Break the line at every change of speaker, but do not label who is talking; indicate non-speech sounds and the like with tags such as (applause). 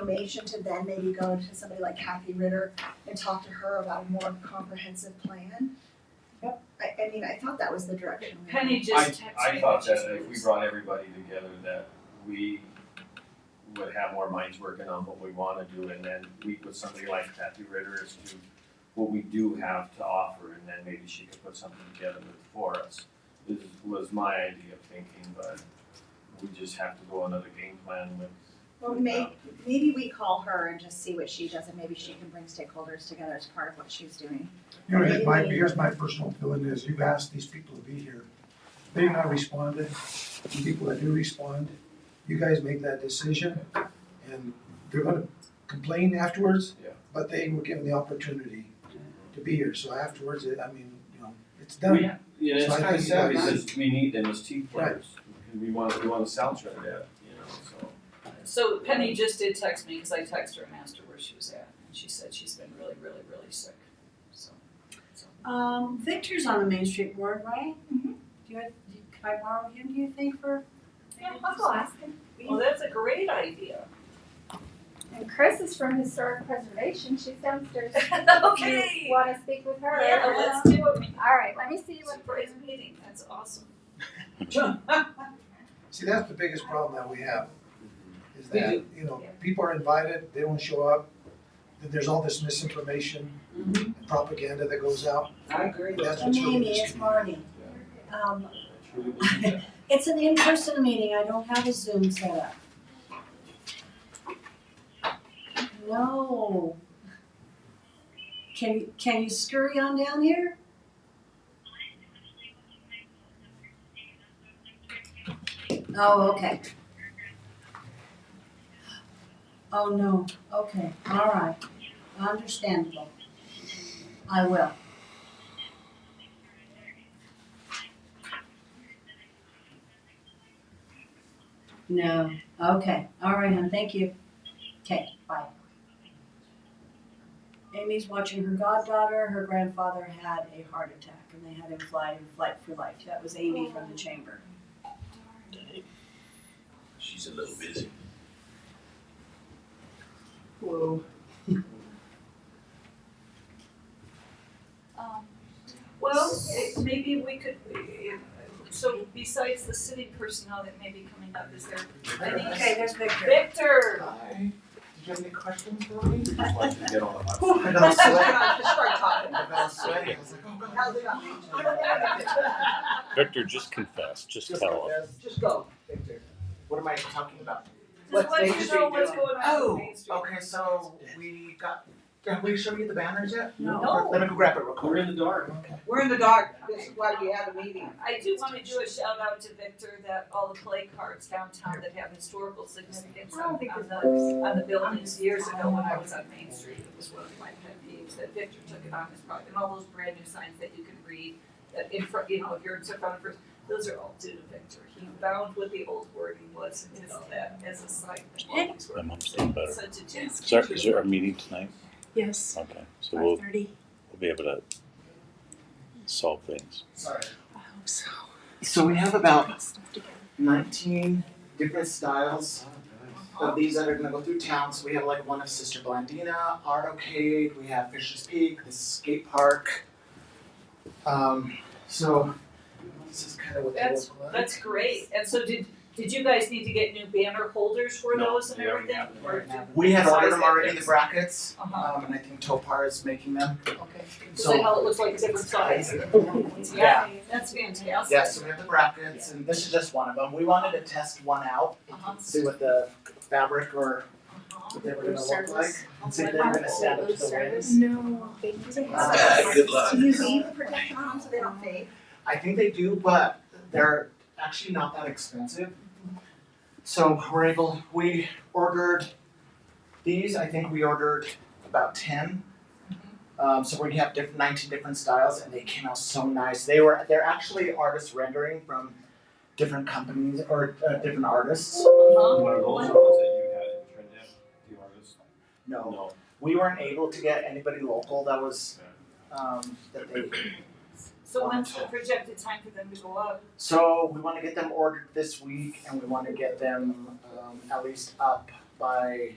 information to then maybe go to somebody like Kathy Ritter and talk to her about a more comprehensive plan. Yep. I, I mean, I thought that was the direction. we were
Penny
I,
just texted me.
I thought
that she
that if we
was-
brought everybody together, that we would have more minds working on what we wanna do, and then meet with somebody like Kathy Ritter as to what we do have to offer, and then maybe she could put something together with- for us, is, was my idea of thinking, but we just have to go another game plan with.
Well, may, maybe we call her and just see what she does, and maybe she can bring stakeholders together as part of what she's doing.
You know, here's my, here's my personal feeling is you've asked these people to be here. They're not responding. The people that do respond, you guys make that decision and they're gonna complain afterwards.
Yeah.
But they were given the opportunity to be here. So afterwards, it- I mean, you know, it's
We,
done.
yeah, it's
So I
kinda
think
sad
that's-
because we need them as team players, we wanna, we wanna soundtrack that, you know, so.
So Penny just did text me, cause I texted her and asked her where she was at, and she said she's been really, really, really sick, so.
Um, Victor's on the Main Street Board, right?
Mhm.
Do you, do you- could I borrow him, do you think, for?
Yeah, I'll go ask him.
Well, that's a great idea.
And Chris is from Historic Preservation, she's downstairs.
(laughs) Okay.
You Wanna speak with her?
Yeah, let's do it.
Alright, let me see what.
Surprise meeting, that's awesome.
See, that's the biggest problem that we have,
Mm-hmm.
is that, you know, people are invited, they don't show up. Then there's all this misinformation and propaganda that goes out.
Mm-hmm. I agree.
That's what's really
Amy, it's
disconcerting.
Marty. Um,
(laughs)
it's an in-person meeting, I don't have a Zoom set up. No. Can, can you scurry on down here? Oh, okay. Oh, no, okay, all right, understandable. I will. No, okay, all right, hon, thank you. Okay, bye. Amy's watching her goddaughter, her grandfather had a heart attack and they had him fly in flight for life. That was Amy from the chamber.
She's a little busy.
Hello.
Um, Well, it- maybe we could, so besides the city personnel that may be coming up, is there any?
Okay, there's Victor.
Victor!
Hi. Did you have any questions for me?
Just wanted to get on the hot
(laughs)
seat.
I got sweaty.
Just start talking.
I got sweaty. I was like, oh god.
How's it
Victor, just confess. Just,
Just
tell him.
confess. Just go, Victor. What am I talking about?
Just let
Main
you
Street
know what's
doing?
going on with
Oh,
Main Street.
okay, so we got, have we shown you the banners yet?
No.
Let me go grab it real
We're
quick.
in the dark.
We're in the dark, this is why we had a meeting.
I do wanna do a shout out to Victor that all the play cards downtown that have historical significance on on the, on the buildings years ago when I was on Main Street, it was one of my pet peeves, that Victor took it on his project, and all those brand new signs that you can read, that in front, you know, if you're in front of first, those are all due to Victor, he found what the old wording was and did all that as a sign. that always worked.
I'm understanding better.
Such a genius.
Is there, is there a meeting tonight?
Yes,
Okay, so we'll,
thirty,
we'll be able to solve things.
Sorry.
I hope so.
So we have about nineteen different styles of these that are gonna go through town. So we have like one of Sister Blandina, Art Arcade, we have Fisher's Peak, the skate park. Um, so this is kind of what they
That's-
look like.
That's great, and so did, did you guys need to get new banner holders for
No,
those and
they already
everything?
have them.
Or did-
We had ordered
Besides
them
that,
already, the
yes.
brackets,
Uh-huh,
um, and I think Topar is making them.
okay, so
So,
how it looks like different size, yeah.
yeah,
That's fantastic.
yeah, so we have the brackets, and this is just one of them. We wanted to test one out,
Uh-huh.
see what the fabric or what they were gonna look like, and see if they were gonna stand up to the winds.
No, thank you.
Ah, good luck.
Do you leave the protection on so they don't fade?
I think they do, but they're actually not that expensive. So we're able, we ordered these, I think we ordered about ten.
Mm-hmm.
Um, so we have different, nineteen different styles and they came out so nice. They were, they're actually artist rendering from different companies or uh, different artists.
Uh-huh.
One of those ones that you had in Trinidad, the artist?
No, we weren't able to get anybody local that was, um, that they,
So when's the projected time for them to go up?
so we wanna get them ordered this week and we wanna get them, um, at least up by